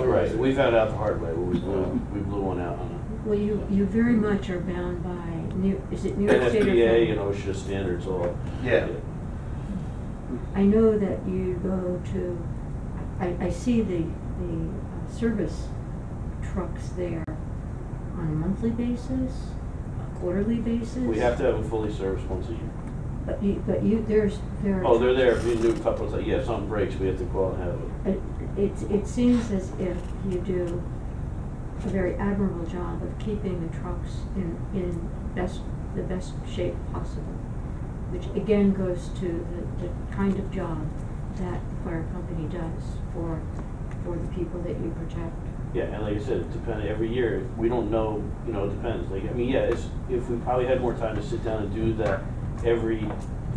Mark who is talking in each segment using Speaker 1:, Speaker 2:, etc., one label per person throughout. Speaker 1: Right, we found out the hard way, we blew, we blew one out on
Speaker 2: Well, you, you very much are bound by New, is it
Speaker 1: a
Speaker 2: New York State? or
Speaker 1: NFPA and
Speaker 2: Florida?
Speaker 1: OSHA standards all.
Speaker 3: Yeah.
Speaker 2: I know that you go to, I, I see the, the uh, service trucks there on a monthly basis, a quarterly basis.
Speaker 1: We have to have them fully serviced once a year.
Speaker 2: But you, but you, there's, there are.
Speaker 1: Oh, they're there, if you do a couple, it's like, yeah, if something breaks, we have to go out and have it.
Speaker 2: It, it, it seems as if you do a very admirable job of keeping the trucks in, in best, the best shape possible. Which again goes to the, the kind of job that the fire company does for, for the people that you protect.
Speaker 1: Yeah, and like I said, it depends, every year, we don't know, you know, it depends, like, I mean, yeah, it's, if we probably had more time to sit down and do that every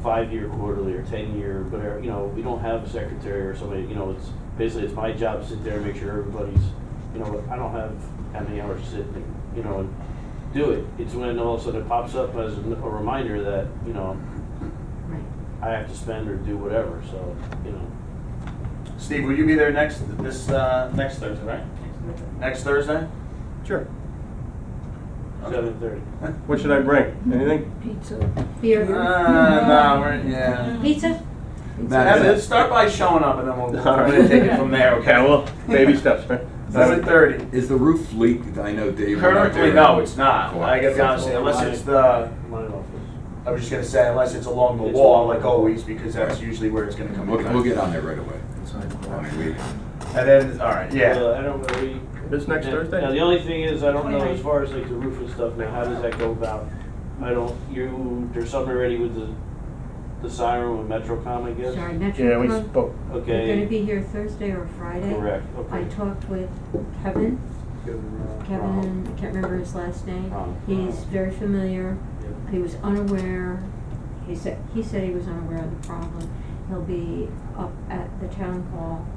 Speaker 1: five-year quarterly or ten-year, whatever, you know, we don't have a secretary or somebody, you know, it's, basically, it's my job to sit there and make sure everybody's, you know, I don't have how many hours to sit, and, you know, and do it. It's when all of a sudden it pops up as a reminder that, you know,
Speaker 2: Right.
Speaker 1: I have to spend or do whatever, so, you know.
Speaker 3: Steve, will you be there next, this, uh, next Thursday, right? Next Thursday?
Speaker 4: Sure.
Speaker 1: Seven thirty.
Speaker 4: What should I bring? Anything?
Speaker 5: Pizza.
Speaker 3: Uh,
Speaker 2: Beer,
Speaker 1: Ah,
Speaker 3: no, we're, yeah.
Speaker 2: pizza?
Speaker 3: Have it- Start by showing up and then we'll, we're gonna take it from there,
Speaker 4: Okay,
Speaker 3: okay?
Speaker 4: well, baby steps, right?
Speaker 3: Seven thirty.
Speaker 6: Is the roof leaked? I know Dave. went out
Speaker 3: Currently,
Speaker 6: there.
Speaker 3: no, it's not. I gotta be honest with you, unless it's the,
Speaker 1: Mine office.
Speaker 3: I was just gonna say, unless it's along the wall like always, because that's usually where it's gonna come
Speaker 6: We'll, we'll
Speaker 3: in.
Speaker 6: get on there right away. I mean, we-
Speaker 3: And then, all right, yeah.
Speaker 1: Uh, I don't really.
Speaker 4: This next Thursday?
Speaker 1: Now, the only thing is, I don't know as far as like the roof and stuff, now, how does that go about? I don't, you, there's something already with the, the siren with MetroCom, I guess?
Speaker 2: Sorry, Metro.
Speaker 4: Yeah, we
Speaker 3: Mm-hmm.
Speaker 2: Pro-
Speaker 4: spoke.
Speaker 2: They're gonna
Speaker 1: Okay,
Speaker 2: be here Thursday or Friday.
Speaker 1: correct, okay.
Speaker 2: I talked with Kevin, Kevin, I can't remember his last name.
Speaker 1: Ron.
Speaker 2: He's very familiar.
Speaker 1: Yeah.
Speaker 2: He was unaware, he said, he said he was unaware of the problem. He'll be up at the town hall,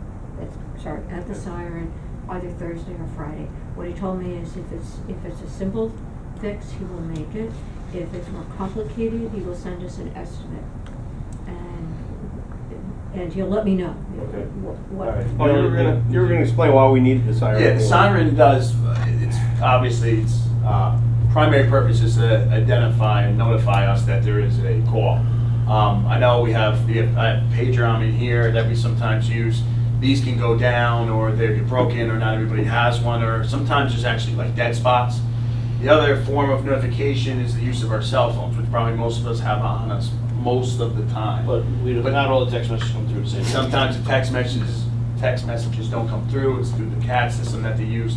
Speaker 2: at, sorry, at the siren, either Thursday or Friday. What he told me is if it's, if it's a simple fix, he will make it. If it's more complicated, he will send us an estimate. And, and he'll let me know.
Speaker 1: Okay.
Speaker 2: What,
Speaker 1: All right.
Speaker 2: what,
Speaker 4: Oh, you were gonna, you were gonna explain why we needed the siren.
Speaker 3: Yeah, the siren does, it's, obviously, its uh, primary purpose is to identify and notify us that there is a call. Um, I know we have, the I have pager on me here that we sometimes use. These can go down, or they get broken, or not everybody has one, or sometimes there's actually like dead spots. The other form of notification is the use of our cell phones, which probably most of us have on us most of the time.
Speaker 1: But we,
Speaker 3: But-
Speaker 1: not all the text messages come through the same.
Speaker 3: And sometimes the text messages, text messages don't come through, it's through the CAD system that they use.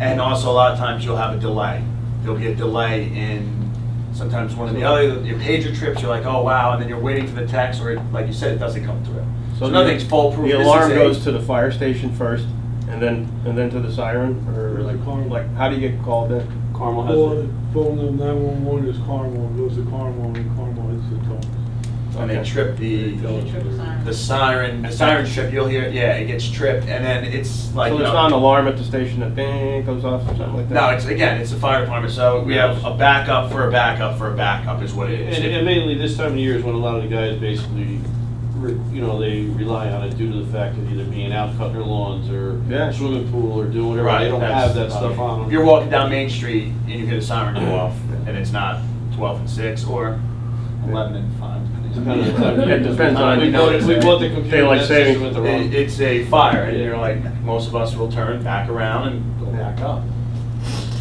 Speaker 3: And also, a lot of times, you'll have a delay. There'll be a delay in sometimes one or the other, your pager trips, you're like, oh, wow, and then you're waiting for the text, or like you said, it doesn't come through. So
Speaker 4: the-
Speaker 3: nothing's foolproof.
Speaker 4: The
Speaker 3: This
Speaker 4: alarm
Speaker 3: is a-
Speaker 4: goes to the fire station first, and then, and then to the siren, or like, like, how do you get called in?
Speaker 1: Carmel
Speaker 7: Well,
Speaker 1: has
Speaker 7: the
Speaker 1: it.
Speaker 7: phone number nine one one is Carmel, it goes to Carmel, and Carmel hits the tones.
Speaker 3: And they
Speaker 4: Okay.
Speaker 3: trip the,
Speaker 5: siren.
Speaker 3: the siren, the siren trip, you'll hear, it, yeah, it gets tripped, and then it's like.
Speaker 4: So
Speaker 3: you
Speaker 4: there's
Speaker 3: know-
Speaker 4: not an alarm at the station that bing goes off or something like that?
Speaker 3: No, it's, again, it's the fire department, so we have a backup for a backup for a backup is what it
Speaker 1: And,
Speaker 3: is.
Speaker 1: and mainly this time of year is when a lot of the guys basically, re- you know, they rely on it due to the fact of either being out cutting their lawns or
Speaker 4: Yeah.
Speaker 1: swimming pool or doing whatever.
Speaker 3: Right,
Speaker 1: They don't
Speaker 3: that's-
Speaker 1: have that stuff on them.
Speaker 3: If you're walking down Main Street and you hear the siren go off, and it's not twelve and six, or eleven and five.
Speaker 1: Depends on the time of year.
Speaker 4: It depends on-
Speaker 1: We bought, we bought the computer,
Speaker 4: Daylight
Speaker 1: that system
Speaker 4: saving.
Speaker 1: went the wrong.
Speaker 3: It- It's a fire, and you're like, most of us will turn back around and go back up.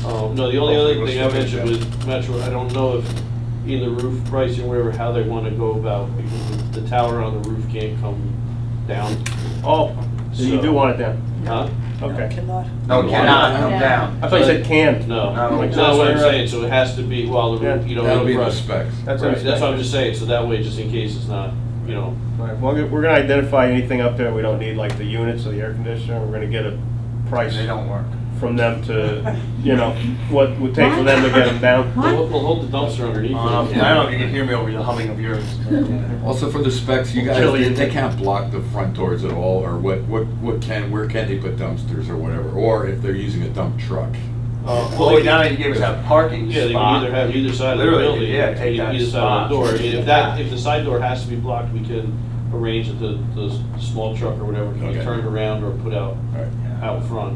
Speaker 1: Um, no, the only other
Speaker 3: Hopefully
Speaker 1: thing I
Speaker 3: we'll see
Speaker 1: mentioned
Speaker 3: it, yeah.
Speaker 1: was Metro, I don't know if either roof pricing, whatever, how they wanna go about, because the tower on the roof can't come down.
Speaker 4: Oh, so you do want it then?
Speaker 1: Huh?
Speaker 4: Okay.
Speaker 5: Cannot.
Speaker 3: No,
Speaker 6: No,
Speaker 3: cannot
Speaker 6: why?
Speaker 3: come
Speaker 5: Yeah.
Speaker 3: down.
Speaker 4: I thought you said canned.
Speaker 1: No,
Speaker 3: No.
Speaker 1: that's what I'm saying, so it has to be while the roof, you know.
Speaker 6: That'll be the
Speaker 1: right.
Speaker 6: specs.
Speaker 4: That's what
Speaker 1: Right,
Speaker 4: I'm
Speaker 1: that's what I'm
Speaker 4: saying.
Speaker 1: just saying, so that way, just in case it's not, you know,
Speaker 4: Right, well, we're gonna identify anything up there we don't need, like the units or the air conditioner, we're gonna get a price
Speaker 3: They don't work.
Speaker 4: from them to, you know, what would take for them to get them down.
Speaker 2: What?
Speaker 1: we'll, we'll hold the dumpster underneath.
Speaker 3: Um,
Speaker 1: it.
Speaker 3: and I don't know if you can hear me over the humming of yours.
Speaker 6: Also for the specs, you guys,
Speaker 4: Chili.
Speaker 6: they, they can't block the front doors at all, or what, what, what can, where can they put dumpsters or whatever, or if they're using a dump truck.
Speaker 1: Uh,
Speaker 3: Well, we down, you gave us that parking
Speaker 1: Yeah, they can
Speaker 3: spot.
Speaker 1: either have either side of the
Speaker 3: Literally,
Speaker 1: building,
Speaker 3: yeah, take
Speaker 1: either
Speaker 3: that
Speaker 1: either side of
Speaker 3: spot.
Speaker 1: the door. I mean, if that, if the side door has to be blocked, we can arrange that the, the small truck or whatever can be
Speaker 6: Okay.
Speaker 1: turned around or put out,
Speaker 6: All right.
Speaker 1: out front.